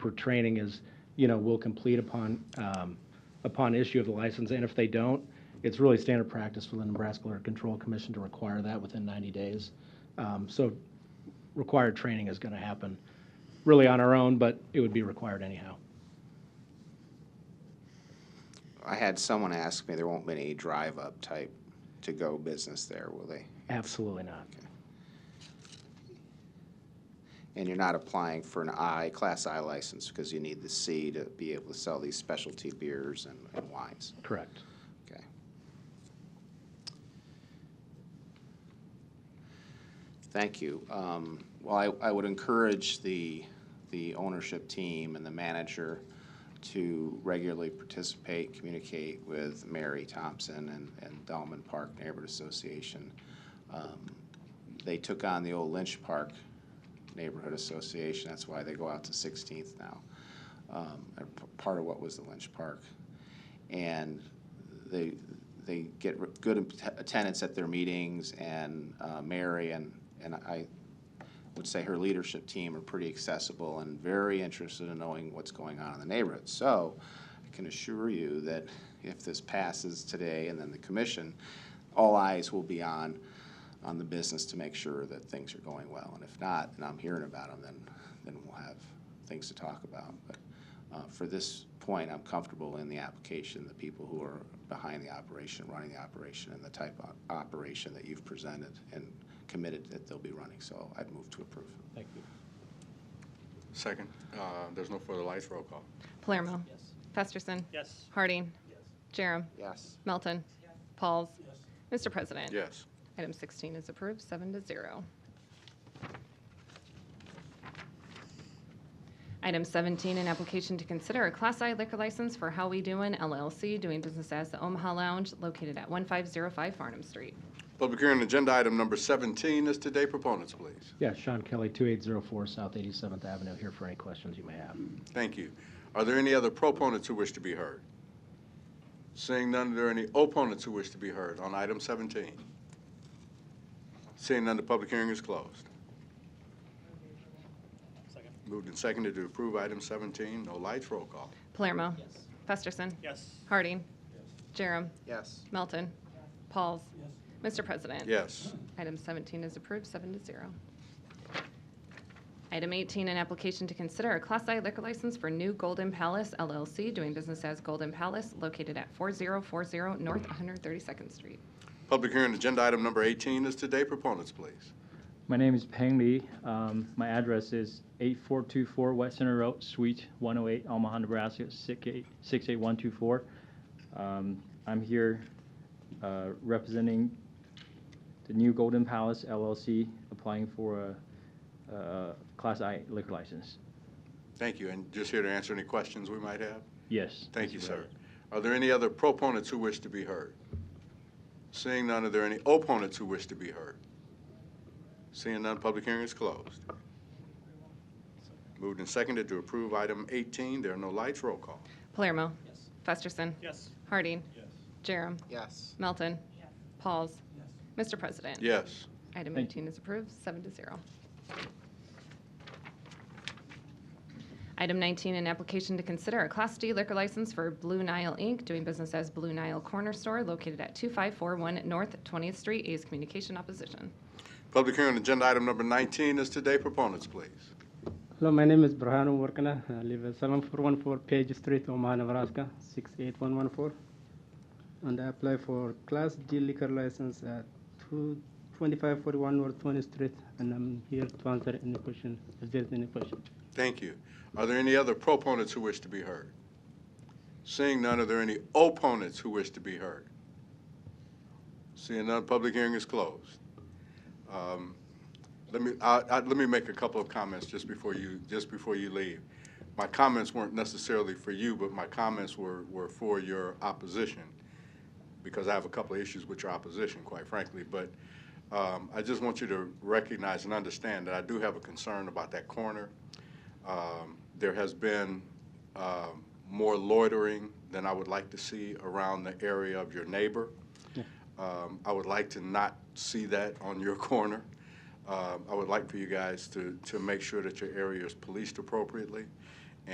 for training is, you know, will complete upon, um, upon issue of the license. And if they don't, it's really standard practice for the Nebraska Liquor Control Commission to require that within 90 days. Um, So required training is going to happen really on our own, but it would be required anyhow. I had someone ask me, there won't be any drive-up type to-go business there, will they? Absolutely not. And you're not applying for an I, Class I license, because you need the C to be able to sell these specialty beers and and wines. Correct. Okay. Thank you. Um, Well, I, I would encourage the, the ownership team and the manager to regularly participate, communicate with Mary Thompson and, and Dalman Park Neighborhood Association. Um, They took on the old Lynch Park Neighborhood Association, that's why they go out to 16th now. Um, and p- Part of what was the Lynch Park and they, they get re- good at- attendance at their meetings, and uh, Mary and, and I would say her leadership team are pretty accessible and very interested in knowing what's going on in the neighborhood. So I can assure you that if this passes today and then the commission, all eyes will be on, on the business to make sure that things are going well. And if not, and I'm hearing about them, then, then we'll have things to talk about. But uh, For this point, I'm comfortable in the application, the people who are behind the operation, running the operation, and the type of operation that you've presented and committed that they'll be running. So I'd move to approve. Thank you. Second, uh, there's no further lights, roll call. Palermo. Festerson. Yes. Harding. Jerem. Yes. Melton. Pauls. Mr. President. Yes. Item 16 is approved, seven to zero. Item 17, an application to consider a Class I liquor license for How We Doin' LLC, doing business as the Omaha Lounge, located at 1505 Farnham Street. Public hearing, agenda item number 17 is today. Proponents, please. Yeah, Sean Kelly, 2804 South 87th Avenue, here for any questions you may have. Thank you. Are there any other proponents who wish to be heard? Seeing none, are there any opponents who wish to be heard on item 17? Seeing none, the public hearing is closed. Second. Moved and seconded to approve item 17, no lights, roll call. Palermo. Festerson. Yes. Harding. Jerem. Yes. Melton. Pauls. Mr. President. Yes. Item 17 is approved, seven to zero. Item 18, an application to consider a Class I liquor license for New Golden Palace LLC, doing business as Golden Palace, located at 4040 North 132nd Street. Public hearing, agenda item number 18 is today. Proponents, please. My name is Peng Li. Um, my address is 8424 West Center Road, Suite 108, Omaha, Nebraska, 68 68124. Um, I'm here uh, representing the new Golden Palace LLC, applying for a, a Class I liquor license. Thank you, and just here to answer any questions we might have. Yes. Thank Mr. you, sir. President. Are there any other proponents who wish to be heard? Seeing none, are there any opponents who wish to be heard? Seeing none, public hearing is closed. Moved and seconded to approve item 18. There are no lights. Roll call. Palermo. Festerson. Yes. Harding. Jerem. Yes. Melton. Pauls. Mr. President. Yes. Item Thank 18 is approved, seven to zero. Item 19, an application to consider a Class D liquor license for Blue Nile Inc., doing business as Blue Nile Corner Store, located at 2541 North 20th Street, A's Communication Opposition. Public hearing, agenda item number 19 is today. Proponents, please. Hello, my name is Brahanu Warkana. I live at 7414 Page Street, Omaha, Nebraska, 68114. And I apply for Class D liquor license at 2 2541 North 20th Street. And I'm here to answer any question, if there's any question. Thank you. Are there any other proponents who wish to be heard? Seeing none, are there any opponents who wish to be heard? Seeing none, public hearing is closed. Um, Let me, I, I, let me make a couple of comments just before you, just before you leave. My comments weren't necessarily for you, but my comments were, were for your opposition, because I have a couple of issues with your opposition, quite frankly. But, um, I just want you to recognize and understand that I do have a concern about that corner. Um, There has been um, more loitering than I would like to see around the area of your neighbor. Um, I would like to not see that on your corner. Um, I would like for you guys to, to make sure that your area is policed appropriately.